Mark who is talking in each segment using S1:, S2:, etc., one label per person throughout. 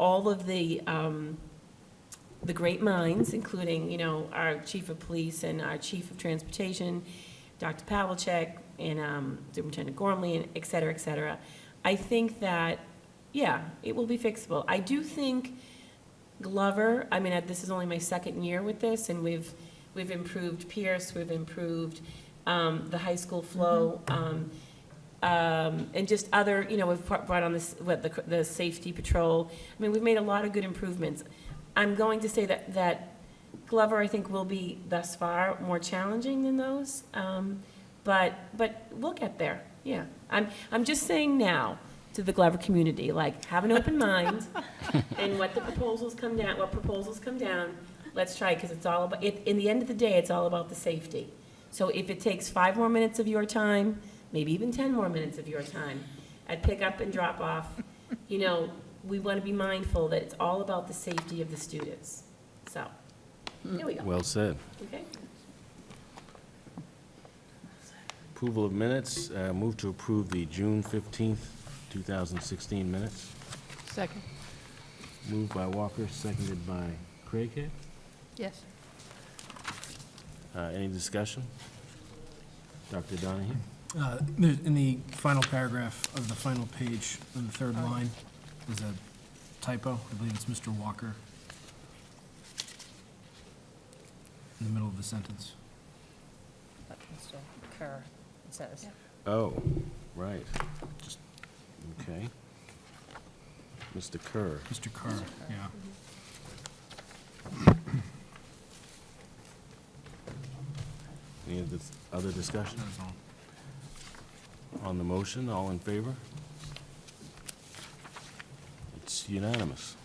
S1: all of the, um, the great minds, including, you know, our chief of police and our chief of transportation, Dr. Pavlicek, and um, Superintendent Gormley, and et cetera, et cetera. I think that, yeah, it will be fixable. I do think Glover, I mean, I- this is only my second year with this, and we've, we've improved Pierce, we've improved um, the high school flow, um, um, and just other, you know, we've brought brought on this, what, the, the safety patrol. I mean, we've made a lot of good improvements. I'm going to say that, that Glover, I think, will be thus far more challenging than those. Um, But, but we'll get there, yeah. I'm, I'm just saying now to the Glover community, like, have an open mind and what the proposals come down, what proposals come down, let's try, because it's all about, it, in the end of the day, it's all about the safety. So if it takes five more minutes of your time, maybe even 10 more minutes of your time, at pick up and drop off, you know, we want to be mindful that it's all about the safety of the students. So, there we go,
S2: Well said.
S1: okay?
S2: Approval of minutes, uh, move to approve the June 15th, 2016 minutes.
S3: Second,
S2: Moved by Walker, seconded by Craighead.
S3: yes.
S2: Uh, Any discussion? Dr. Donahue?
S4: Uh, there's- In the final paragraph of the final page, on the third line, there's a typo. I believe it's Mr. Walker. In the middle of the sentence.
S5: That can still occur, it says.
S2: Oh, right. Just- Okay. Mr. Kerr,
S4: Mr. Carr, yeah.
S2: any other- other discussion
S4: That is all.
S2: on the motion? All in favor? It's unanimous.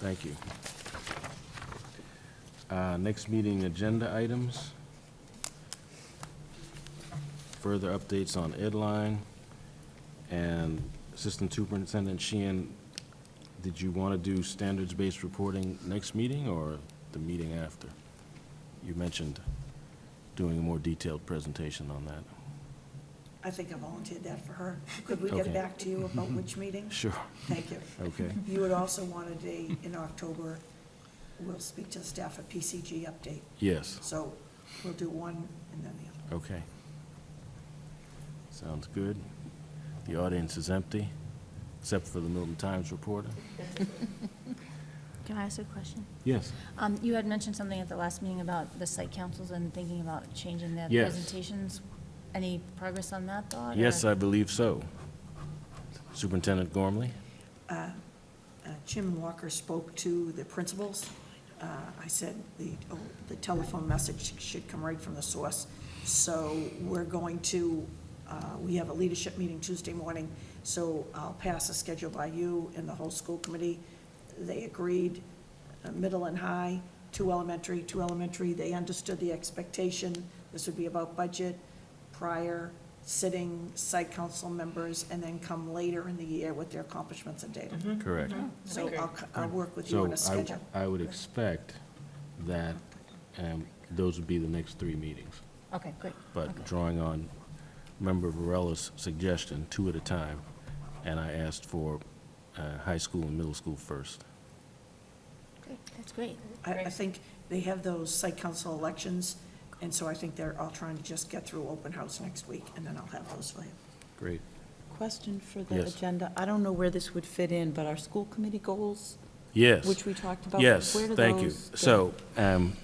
S2: Thank you. Uh, Next meeting agenda items. Further updates on Edline. And Assistant Superintendent Sheehan, did you want to do standards-based reporting next meeting or the meeting after? You mentioned doing a more detailed presentation on that.
S6: I think I volunteered that for her. Could we get
S2: Okay. Mm-hmm.
S6: back to you about which meeting?
S2: Sure.
S6: Thank you.
S2: Okay.
S6: You had also wanted a, in October, we'll speak to staff at PCG update.
S2: Yes,
S6: So we'll do one and then the other.
S2: okay. Sounds good. The audience is empty, except for the Milton Times reporter.
S7: Can I ask a question?
S2: Yes.
S7: Um, You had mentioned something at the last meeting about the site councils and thinking about changing their
S2: Yes.
S7: presentations. Any progress on that thought? or-
S2: Yes, I believe so. Superintendent Gormley?
S6: Uh, Jim Walker spoke to the principals. Uh, I said the, oh, the telephone message should come right from the source. So we're going to, uh, we have a leadership meeting Tuesday morning, so I'll pass a schedule by you and the whole school committee. They agreed, uh, middle and high, two elementary, two elementary. They understood the expectation. This would be about budget, prior, sitting, site council members, and then come later in the year with their accomplishments and data.
S2: Correct.
S6: So
S1: Okay.
S6: I'll, c- I'll work with Mm-hmm. you
S2: So
S6: on a
S2: I,
S6: schedule.
S2: I would expect that um, those would be the next three meetings.
S7: Okay, great.
S2: But drawing on Member Varela's suggestion, two at a time, and I asked for uh, high school and middle school first.
S7: Great, That's great.
S6: I, I think they have those site council elections, and so I think they're all trying to just get through open house next week, and then I'll have those for you.
S2: Great.
S8: Question for the
S2: Yes.
S8: agenda. I don't know where this would fit in, but our school committee goals,
S2: Yes.
S8: which we talked about.
S2: Yes,
S8: where do
S2: thank you.
S8: those go?
S2: So, um,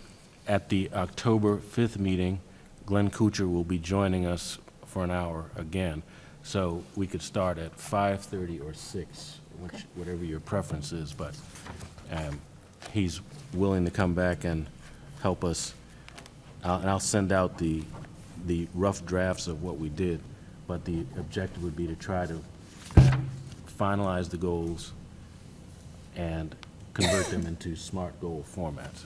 S2: at the October 5th meeting, Glenn Kuchar will be joining us for an hour again. So we could start at 5:30 or 6, which, whatever your preference is, but um, he's willing to come back and help us. I'll- And I'll send out the, the rough drafts of what we did, but the objective would be to try to um, finalize the goals and convert them into SMART goal formats.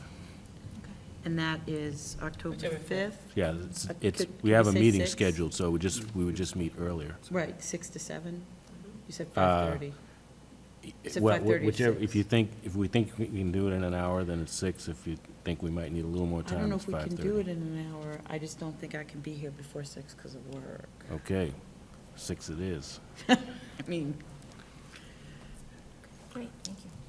S8: And that is October 5th?
S2: Yeah, it's,
S8: Uh,
S2: it's,
S8: could-
S2: we
S8: could
S2: have a
S8: we say
S2: meeting
S8: six?
S2: scheduled, so we just, we would just meet earlier.
S8: Right, 6 to 7?
S1: Mm-hmm.
S8: You said
S2: Uh,
S8: 5:30. It's at
S2: Well,
S8: 5:30 to
S2: Whichever, if
S8: six.
S2: you think, if we think we can do it in an hour, then it's six. If you think we might need a little more
S8: I don't
S2: time,
S8: know
S2: it's
S8: if we
S2: five
S8: can
S2: thirty.
S8: do it in an hour. I just don't think I can be here before 6 because of work.
S2: Okay, six it is.
S8: I mean,
S7: Great, thank you.